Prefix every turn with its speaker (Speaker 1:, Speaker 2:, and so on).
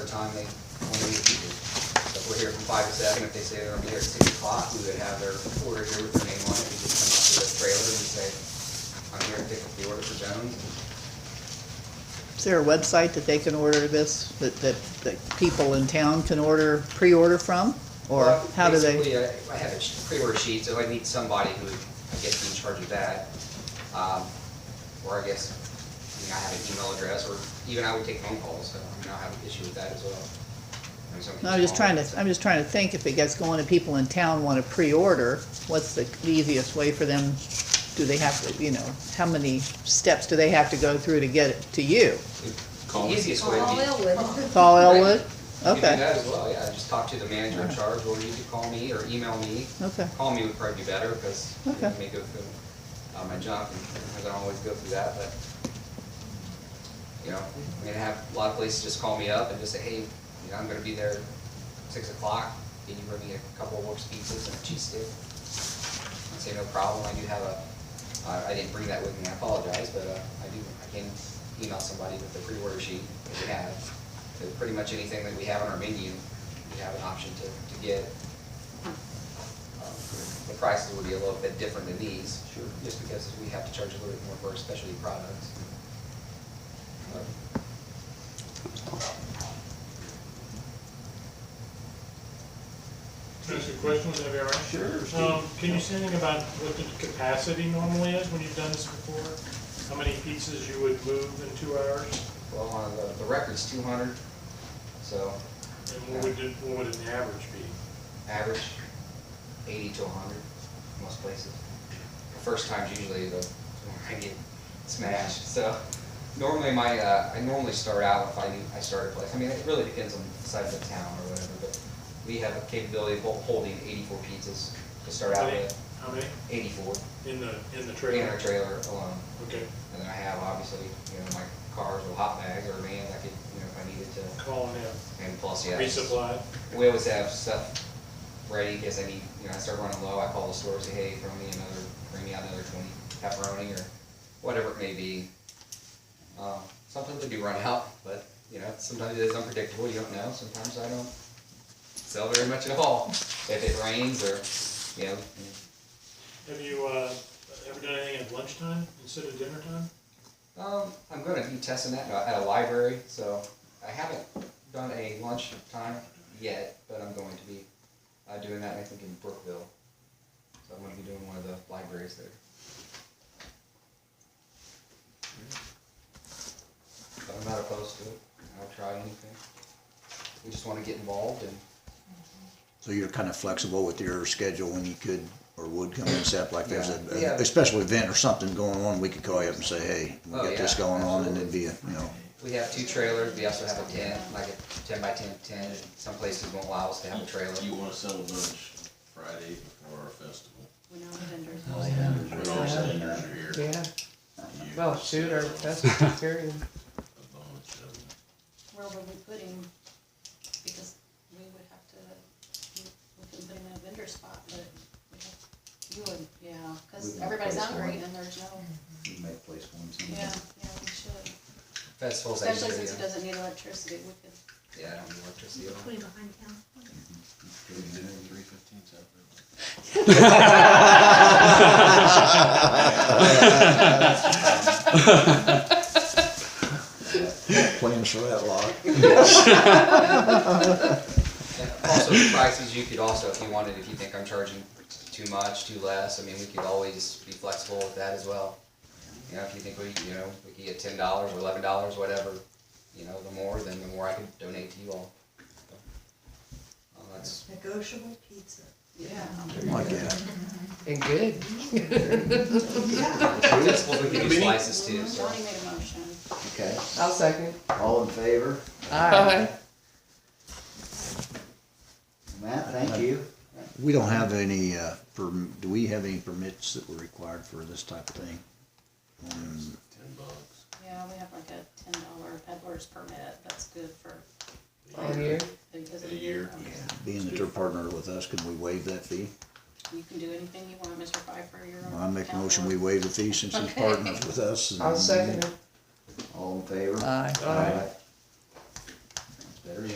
Speaker 1: time they, when we need people. So If we're here from five to seven, if they say they're gonna be here at six o'clock, we would have their order here with their name on it, we just come up to the trailer and say, I'm here to pick up the order for Jones.
Speaker 2: Is there a website that they can order this, that, that, that people in town can order, pre-order from? Or
Speaker 1: Well,
Speaker 2: how do they,
Speaker 1: Basically, uh, I I have a sh- pre-order sheet, so I need somebody who, I guess, is in charge of that. Um, Or I guess, I mean, I have an email address, or even I would take phone calls, so I mean, I have an issue with that as well. I mean, some
Speaker 2: no, I'm just
Speaker 1: people-
Speaker 2: trying to, I'm just trying to think, if it gets going and people in town wanna pre-order, what's the easiest way for them? Do they have to, you know, how many steps do they have to go through to get it to you?
Speaker 1: The easiest way
Speaker 3: Call
Speaker 1: would be. you
Speaker 3: Elwood.
Speaker 2: Call
Speaker 1: Right.
Speaker 2: Elwood?
Speaker 1: could do
Speaker 2: Okay,
Speaker 1: that as well, yeah, just talk to the manager in charge, or you could call me or email me.
Speaker 2: okay,
Speaker 1: Call me would probably be better, because it
Speaker 2: Okay.
Speaker 1: may go through, uh, my junk, and I don't always go through that, but, you know, I mean, I have a lot of places just call me up and just say, hey, you know, I'm gonna be there six o'clock, can you bring me a couple of works pizzas and a cheese stick? I say, no problem, I do have a, I, I didn't bring that with me, I apologize, but, uh, I do, I can email somebody with the pre-order sheet that we have. So pretty much anything that we have on our menu, we have an option to, to get. Um, The prices would be a little bit different than these. Sure. Just because we have to charge a little bit more for our specialty products. Um,
Speaker 4: Can I ask you a question, would that be all right?
Speaker 5: Sure,
Speaker 4: Um,
Speaker 5: Steve.
Speaker 4: can you say anything about what the capacity normally is when you've done this before? How many pizzas you would move in two hours?
Speaker 1: Well, on the, the record's two hundred, so
Speaker 4: And what would, it- what would an average be?
Speaker 1: average eighty to hundred most places. The first time's usually the, when I get smashed, so normally my, uh, I normally start out if I, do- I start a place, I mean, it really depends on the size of the town or whatever, but we have a capability of hol- holding eighty-four pizzas to start out
Speaker 4: How many-
Speaker 1: with,
Speaker 4: How many?
Speaker 1: eighty-four.
Speaker 4: In the, in the
Speaker 1: in
Speaker 4: trailer?
Speaker 1: our trailer alone.
Speaker 4: Okay,
Speaker 1: And then I have obviously, you know, my cars or hot bags or vans, I could, you know, if I needed to.
Speaker 4: calling in,
Speaker 1: And plus, yeah.
Speaker 4: resupply,
Speaker 1: We always have stuff ready in case I need, you know, I start running low, I call the store, say, hey, throw me another, bring me out another twenty pepperoni or whatever it may be. Um, sometimes they do run out, but, you know, sometimes it is unpredictable, you don't know, sometimes I don't sell very much at all. If it rains or, you know,
Speaker 4: have you, uh, ever done anything at lunchtime instead of dinner time?
Speaker 1: Um, I'm gonna be testing that at a library, so I haven't done a lunch time yet, but I'm going to be uh, doing that, I think, in Brookville. So I'm gonna be doing one of the libraries there. But I'm not opposed to it, I'll try anything. We just wanna get involved and,
Speaker 5: So you're kind of flexible with your schedule when you could or would come in, except like there's a,
Speaker 1: Yeah, yeah.
Speaker 5: a special event or something going on, we could call you up and say, hey, we
Speaker 1: Oh,
Speaker 5: got this
Speaker 1: yeah,
Speaker 5: going on, and it'd be, a you know,
Speaker 1: we have two trailers, we also have a tent, like a ten by ten tent, and some places won't allow us to have a trailer.
Speaker 6: You wanna sell a bunch Friday before our festival.
Speaker 3: We know the vendors.
Speaker 6: Uh, When our seniors are here.
Speaker 7: Oh, Yeah,
Speaker 6: you
Speaker 7: well, shoot, our
Speaker 6: sell
Speaker 7: best experience.
Speaker 6: A bunch of them.
Speaker 3: Where would we put him? Because we would have to, we can put him in a vendor spot, but we have- you would, yeah,
Speaker 5: We'd
Speaker 3: because
Speaker 5: not
Speaker 3: everybody's
Speaker 5: place Mm-hmm. for
Speaker 3: hungry
Speaker 5: him.
Speaker 3: and there's no,
Speaker 5: you might place one.
Speaker 3: yeah, yeah, we should.
Speaker 1: Festivals. I
Speaker 3: Especially
Speaker 1: usually
Speaker 3: since he
Speaker 1: do.
Speaker 3: doesn't need electricity, we could,
Speaker 1: Yeah, I don't need electricity at all.
Speaker 8: Put him behind town.
Speaker 6: Three fifteen separate.
Speaker 5: Plans for that lot.
Speaker 1: And Also, the prices, you could also, if you wanted, if you think I'm charging too much, too less, I mean, we could always be flexible with that as well. You know, if you think we, you know, we could get ten dollars or eleven dollars, whatever, you know, the more, then the more I could donate to you all. Um, that's,
Speaker 9: Negotiable pizza.
Speaker 3: yeah. Mm-hmm.
Speaker 5: Like that.
Speaker 7: And good.
Speaker 1: that's what we could do slices too, so.
Speaker 3: Johnny made a motion.
Speaker 5: Okay,
Speaker 7: I'll second.
Speaker 5: all in favor?
Speaker 7: Aye.
Speaker 5: Matt, thank you. We don't have any, uh, perm, do we have any permits that were required for this type of thing? Um,
Speaker 6: Ten bucks.
Speaker 3: Yeah, we have like a ten dollar peddler's permit, that's good for,
Speaker 7: All year.
Speaker 3: because of
Speaker 6: A
Speaker 3: the year.
Speaker 6: year.
Speaker 3: Okay.
Speaker 5: Being that they're partnered with us, can we waive that fee?
Speaker 3: You can do anything you want, Mr. Piper, you're on.
Speaker 5: I make a
Speaker 3: town
Speaker 5: motion,
Speaker 3: board.
Speaker 5: we waive the fee since he's
Speaker 3: Okay.
Speaker 5: partners with us. and-
Speaker 7: I'll second it.
Speaker 5: All in favor?
Speaker 2: aye.
Speaker 7: Aye.
Speaker 5: Alright.